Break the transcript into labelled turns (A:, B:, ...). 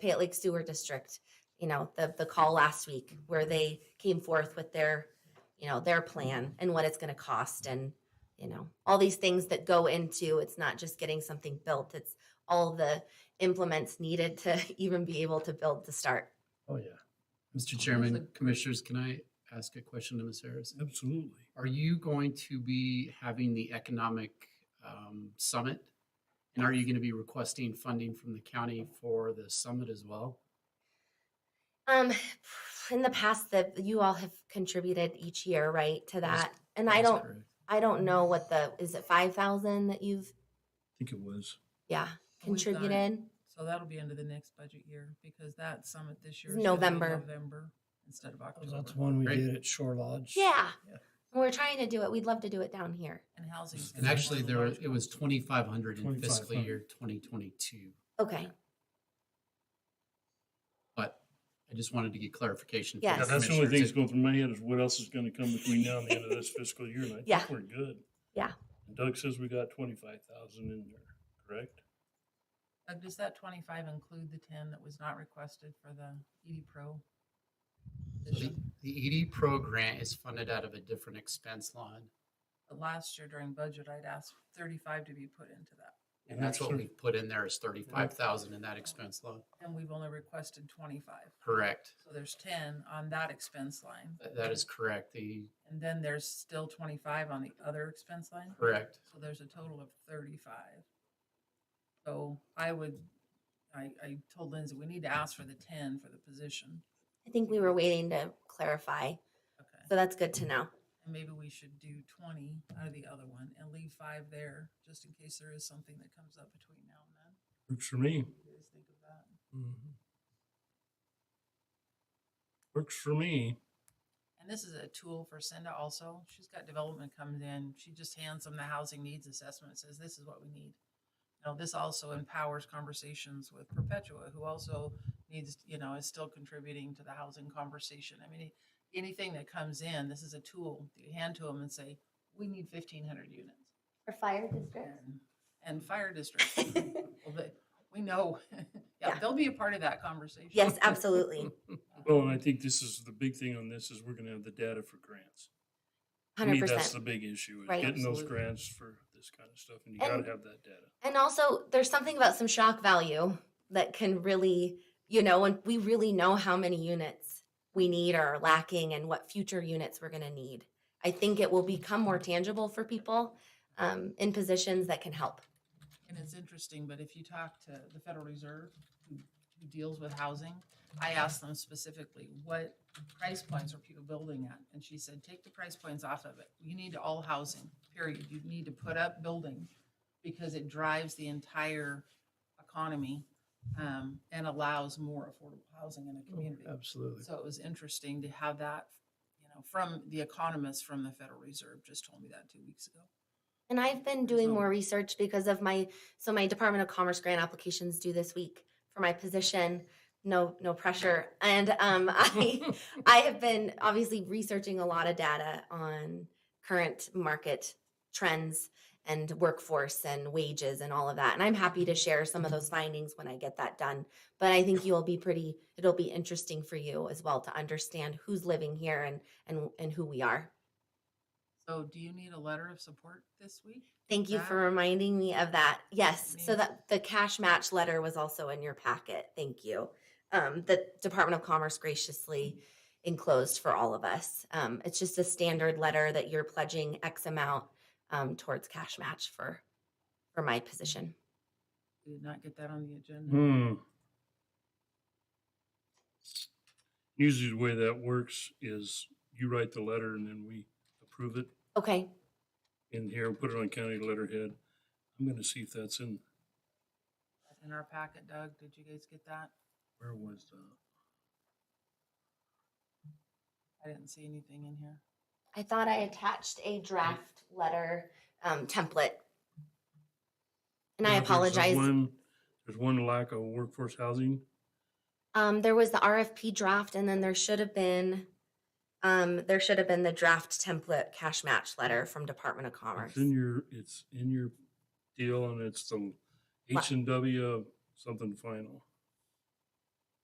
A: Payette Lake Sewer District, you know, the, the call last week where they came forth with their, you know, their plan and what it's going to cost and, you know, all these things that go into, it's not just getting something built, it's all the implements needed to even be able to build to start.
B: Oh, yeah. Mr. Chairman, Commissioners, can I ask a question to Ms. Harris?
C: Absolutely.
B: Are you going to be having the economic um, summit? And are you going to be requesting funding from the county for the summit as well?
A: Um, in the past that you all have contributed each year, right, to
B: That's-
A: that? And I
B: That's
A: don't,
B: correct.
A: I don't know what the, is it five thousand that you've,
C: I think it was.
A: yeah,
D: We've done it.
A: contributed?
D: So that'll be into the next budget year because that summit this year.
A: It's
D: is gonna be
A: November.
D: November instead of October.
C: Oh, That's the one we
B: Great.
C: did at Shore Lodge.
A: Yeah.
C: Yeah.
A: And We're trying to do it. We'd love to do it down here.
D: And housing.
B: And actually, there, it was twenty-five hundred in fiscal
C: 2,500.
B: year twenty twenty-two.
A: Okay.
B: But I just wanted to get clarification. from
A: Yeah,
C: Yeah, that's the only
B: commissioners
C: thing that's
B: if-
C: going through my head is what else is going to come between now and the end of this fiscal year, and I
A: Yeah.
C: think we're good.
A: Yeah.
C: And Doug says we got twenty-five thousand in there, correct?
D: Does that twenty-five include the ten that was not requested for the ED Pro? this
B: The
D: year?
B: the ED Pro grant is funded out of a different expense line,
D: But Last year during budget, I'd asked thirty-five to be put into that,
B: and that's what
C: Sure.
B: we put in there is thirty-five thousand in that expense line.
D: and we've only requested twenty-five.
B: Correct.
D: So there's ten on that expense line,
B: That- That is correct. The,
D: and then there's still twenty-five on the other expense line?
B: correct.
D: So there's a total of thirty-five. So I would, I, I told Lindsay, we need to ask for the ten for the position.
A: I think we were waiting to clarify.
D: Okay.
A: So that's good to know.
D: And maybe we should do twenty out of the other one and leave five there, just in case there is something that comes up between now and then.
C: Works for me.
D: You guys think of that?
C: Mm-hmm. Works for me.
D: And this is a tool for Cinda also. She's got development comes in. She just hands them the housing needs assessment, says, this is what we need. Now, this also empowers conversations with Perpetua, who also needs, you know, is still contributing to the housing conversation. I mean, anything that comes in, this is a tool that you hand to them and say, we need fifteen hundred units.
A: For fire
D: And- And fire districts, well, they, we know, yeah,
A: Yeah.
D: they'll be a part of that conversation.
A: Yes, absolutely.
C: Well, and I think this is, the big thing on this is we're going to have the data for grants. To me,
A: Hundred
C: That's the
A: percent.
C: big issue, is
A: Right.
C: getting those
D: Absolutely.
C: grants for this kind of stuff, and you got
A: And-
C: to have that data.
A: And also, there's something about some shock value that can really, you know, when we really know how many units we need or are lacking and what future units we're going to need. I think it will become more tangible for people um, in positions that can help.
D: And it's interesting, but if you talk to the Federal Reserve, who, who deals with housing, I asked them specifically, what price points are people building at? And she said, take the price points off of it. You need all housing, period. You need to put up building because it drives the entire economy, um, and allows more affordable housing in a community.
C: Absolutely.
D: So it was interesting to have that, you know, from the economist from the Federal Reserve just told me that two weeks ago.
A: And I've been doing
D: So-
A: more research because of my, so my Department of Commerce grant applications due this week for my position. No, no pressure. And um, I, I have been obviously researching a lot of data on current market trends and workforce and wages and all of that. And I'm happy to share some of those findings when I get that done. But I think you'll be pretty, it'll be interesting for you as well to understand who's living here and and and who we are.
D: So do you need a letter of support this week?
A: Thank you for
D: that.
A: reminding me of that. Yes, so
D: means-
A: that the cash match letter was also in your packet. Thank you. Um, the Department of Commerce graciously enclosed for all of us. Um, it's just a standard letter that you're pledging X amount um, towards cash match for for my position.
D: We did not get that on the agenda.
C: Hmm. Usually the way that works is you write the letter and then we approve it
A: Okay,
C: in here and put it on county letterhead. I'm gonna see if that's in,
D: That's in our packet, Doug. Did you guys get that?
C: where was uh, the,
D: I didn't see anything in here.
A: I thought I attached a draft letter um, template, and I
C: Yeah, there's that
A: apologize.
C: one- There's one lack of workforce housing.
A: Um, there was the RFP draft, and then there should have been, um, there should have been the draft template cash match letter from Department of Commerce.
C: It's in your, it's in your deal and it's the H and W something final.